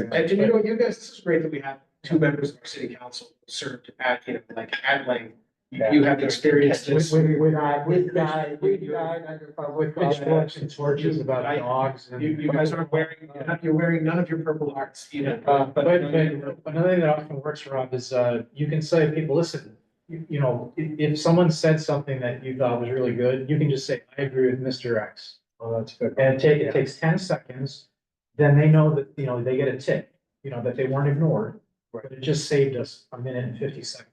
And you know, you guys, this is great that we have two members of our city council who served at, you know, like at length. You you have experienced We, this. we, we died, we died, we died under public pitchforks and torches about dogs and. You, you guys aren't wearing, you're not- you're wearing none of your purple hearts, you know. Uh, but, but another thing that often works, Rob, is, uh, you can say, to people, listen, you, you know, if, if someone said something that you thought was really good, you can just say, I agree with Mr. X. Oh, that's good. And take, it takes ten seconds, then they know that, you know, they get a tick, you know, that they weren't ignored. But it just saved us a minute and fifty seconds.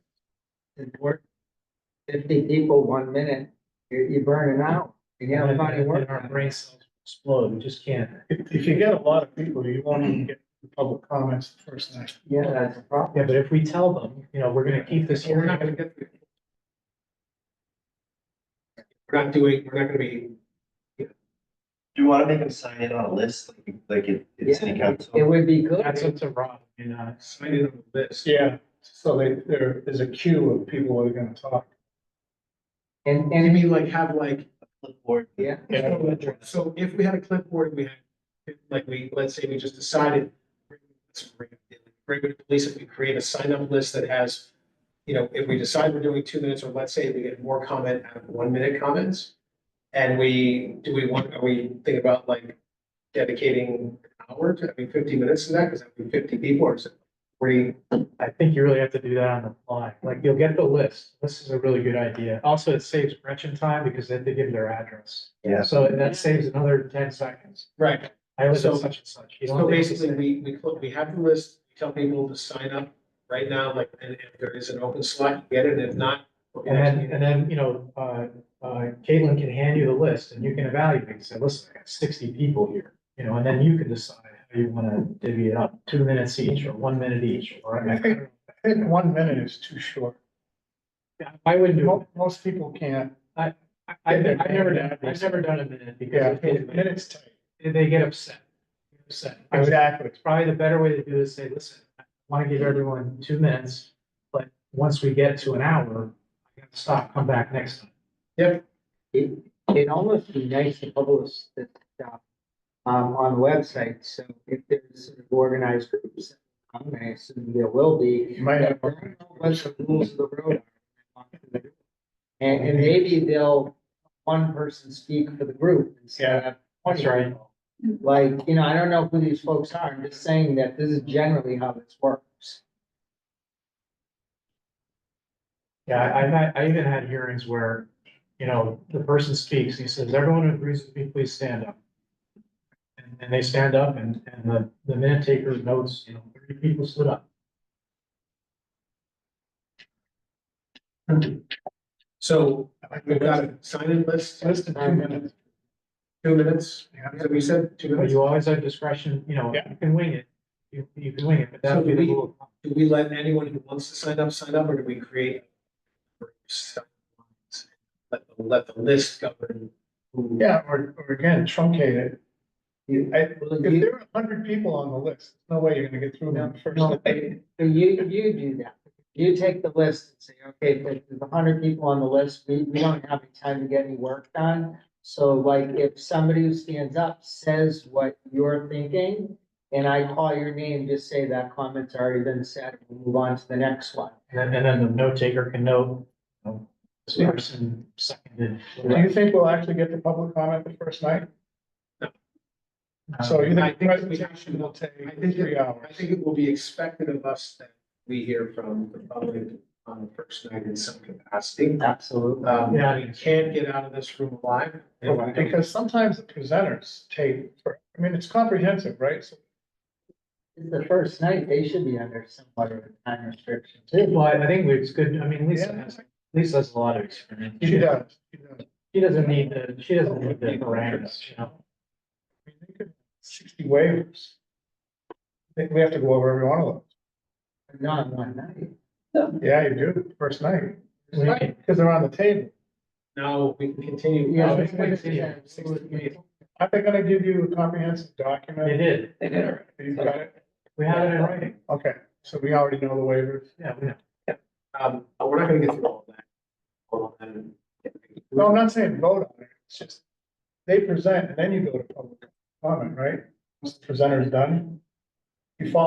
fifty people, one minute, you're, you're burning out. You And have then- money and then work. our brain cells explode, we just can't. If, if you get a lot of people, you won't even get the public comments the first night. Yeah, that's the problem. Yeah, but if we tell them, you know, we're gonna keep this We're hearing, not gonna get. We're not doing, we're not gonna be, Do you wanna make them sign in on a list, like, like it, it's city Yeah, council? It would be good. that's up to Rob, you know. uh, signing on this. Yeah, so they, there is a queue of people who are gonna talk. And, You and, mean like have like, Clipboard. yeah, so if we had a clipboard, we had, like we, let's say we just decided. Regular police, if we create a sign up list that has, you know, if we decide we're doing two minutes, or let's say we get more comment out of one minute comments. And we, do we want, are we thinking about like dedicating an hour to, I mean, fifty minutes to that, because that'd be fifty people or something. Forty, I think you really have to do that on the fly, like you'll get the list, this is a really good idea, also it saves Gretchen time because they have to give their address. Yeah. So that saves another ten seconds, right, I was at So- such and such. You don't So think it's the basically, same. we, we, cl- we have the list, we tell people to sign up right now, like, and if there is an open slot, get it, if not. we'll And then, actually- and then, you know, uh, uh, Caitlin can hand you the list and you can evaluate, and say, listen, I got sixty people here, you know, and then you can decide how you wanna divvy it up, two minutes each or one minute each, or. I don't I think one minute is too short. know. I wouldn't do, it. Most, most people can't. I, I, I've never done, I've never done a minute because a they, Minute's tight. they get upset. Upset. Exactly. It's probably the better way to do is say, listen, I wanna give everyone two minutes, but once we get to an hour, I gotta stop, come back next time. it, it almost be nice to publish this stuff um, on the website, so if there's sort of organized groups, um, I assume there will be. You might have. I don't know What the rules of the road are. And, and maybe they'll, one person speak for the group instead of That's right. Like, you know, I don't know who these folks are, I'm just saying that this is generally how this works. Yeah, I, I've had- I even had hearings where, you know, the person speaks, he says, everyone who agrees with me, please stand up. And, and they stand up and, and the, the minute taker notes, you know, thirty people stood up. So we've got Less a sign-in list, than two minutes. two minutes, Yeah. so we said two But minutes. you always have discretion, you know, you can wing it, you, you can wing it, but that would be the rule. Do we let anyone who wants to sign up, sign up, or do we create? Let, the- let the list govern. who- Yeah, or, or again, truncate it. You- I, Well, if you- there are a hundred people on the list, no way you're gonna get through them first. No, night. So you, you do that, you take the list and say, okay, if there's a hundred people on the list, we, we don't have any time to get any work done. So like, if somebody who stands up says what you're thinking, and I call your name, just say that comment's already been said, we'll move on to the next one. And then, and then the note taker can note, you know, this person seconded. Do you think we'll actually get the public comment the first night? So you Uh, I think the think we- presentation will take I think three hours? I think it will be expected of us that we hear from the public on the first night in some capacity. Absolutely. Um, Yeah. we can't get out of this room alive. and I think Because sometimes the presenters take, for- I mean, it's comprehensive, right? So It's the first night, they should be under somewhat of a time restriction too. Well, I think it's good, I mean, Lisa Yeah. has, Lisa has a lot of experience. She does. she does. I She doesn't need the, she doesn't need the parameters, you know? mean, they could- Sixty waivers. I think we have to go over every one of Not in one night. them. Yeah, you do, first night, Right. because they're on the table. Now we can continue. Yeah, Oh, it's wait, like- yeah, Aren't they gonna give you a comprehensive They document? did. They did already. You've got it? We have it in writing. Okay, so we already know the waivers. Yeah, we know. Um, but we're not gonna get through all of that. All of that. No, I'm not saying vote on it, it's just, they present and then you go to public comment, right? Once the presenter's done, you follow